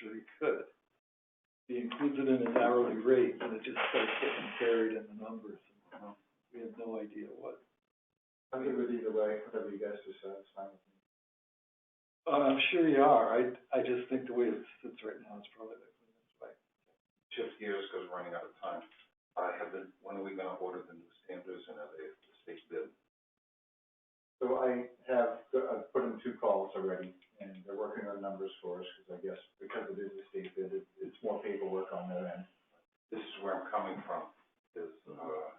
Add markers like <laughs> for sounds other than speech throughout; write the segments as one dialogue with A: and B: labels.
A: sure he could. He includes it in his hourly rate, and it just starts getting buried in the numbers. and We have no idea what.
B: I'm good with either way, whatever you guys decide, it's fine with me.
A: Uh, I'm sure you are. I, I just think the way it sits right now is probably the cleanest way.
B: Shift gears, because we're running out of time. I have been, when are we gonna order the new standards and are they state bid? So I have, I've put in two calls already, and they're working on numbers for us, because I guess, because it is a state bid, it, it's more paperwork on their end. This is where I'm coming from, is, uh,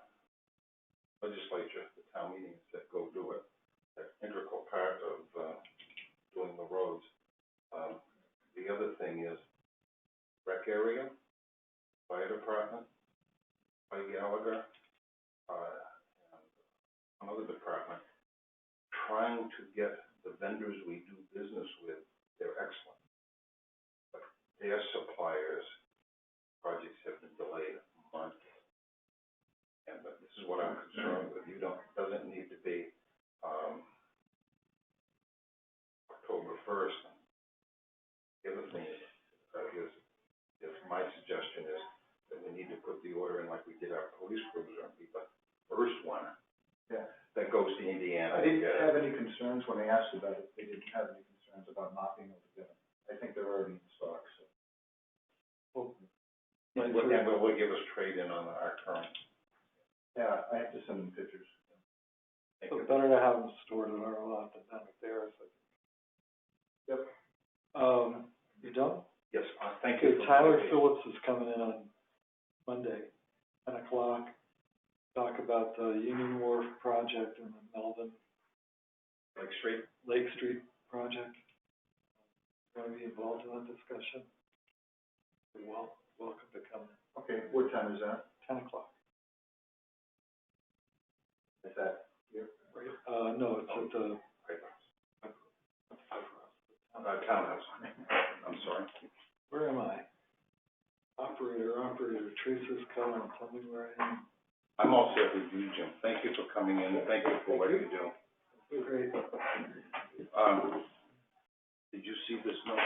B: legislature, the town meetings that go do it, that's integral part of, uh, doing the roads. Um, the other thing is, rec area, fire department, by Gallagher, uh, and another department, trying to get the vendors we do business with, they're excellent. But their suppliers, projects have been delayed months. And but this is what I'm concerned with, you don't, doesn't need to be, um, October first. The other thing is, uh, is, is my suggestion is, that we need to put the order in like we did our police cruiser on people, first one. Yeah. That goes to Indiana. I didn't have any concerns when they asked about it, they didn't have any concerns about not being able to get them. I think they're already in stock, so.
A: My
B: And
A: first-
B: will will give us trade-in on our current. Yeah, I have to send them pictures. Thank
A: It's
B: you.
A: better to have them stored in our lot than have it there, so.
B: Yep.
A: Um, you done?
B: Yes, uh, thank
A: Okay,
B: you. for
A: Tyler
B: that.
A: Phillips is coming in on Monday, ten o'clock, talk about the Union Wharf project and the Melvin
B: Lake Street,
A: Lake Street project. Gonna be involved in that discussion. You're Well, welcome to come,
B: okay, what time is that?
A: ten o'clock,
B: Is that?
A: right? Uh, no, it's at the,
B: Uh, townhouse. <laughs> I'm sorry.
A: where am I? Operator, operator, Teresa's coming, tell me where I am.
B: I'm all set with you, Jim. Thank you for coming in, thank you for what you do.
A: Great.
B: Um, did you see this note?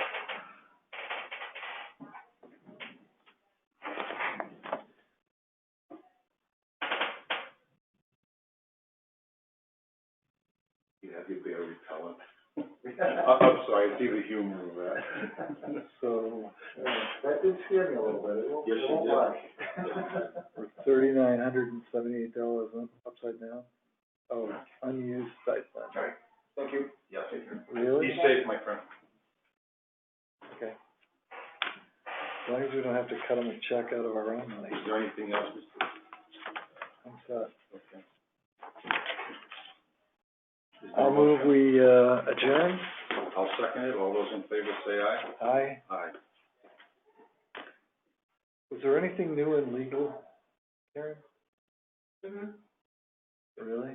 B: You have your bear repellent.
A: <laughs>
B: I'm, Uh, I'm sorry, I see the humor of that.
A: <laughs> So,
B: That did scare me a little bit, Yes, you
A: won't
B: did.
A: lie. <laughs> thirty-nine hundred and seventy-eight dollars upside down. Oh, unused stipend,
B: Alright, thank you. Yes.
A: really?
B: Be safe, my friend.
A: Okay. As long as we don't have to cut them a check out of our own money,
B: Is there anything else, Mr.
A: I'm set.
B: Okay.
A: I'll move we, uh, adjourn.
B: I'll second it. All those in favor say aye.
A: Aye.
B: Aye.
A: Was there anything new in legal, Karen? Really?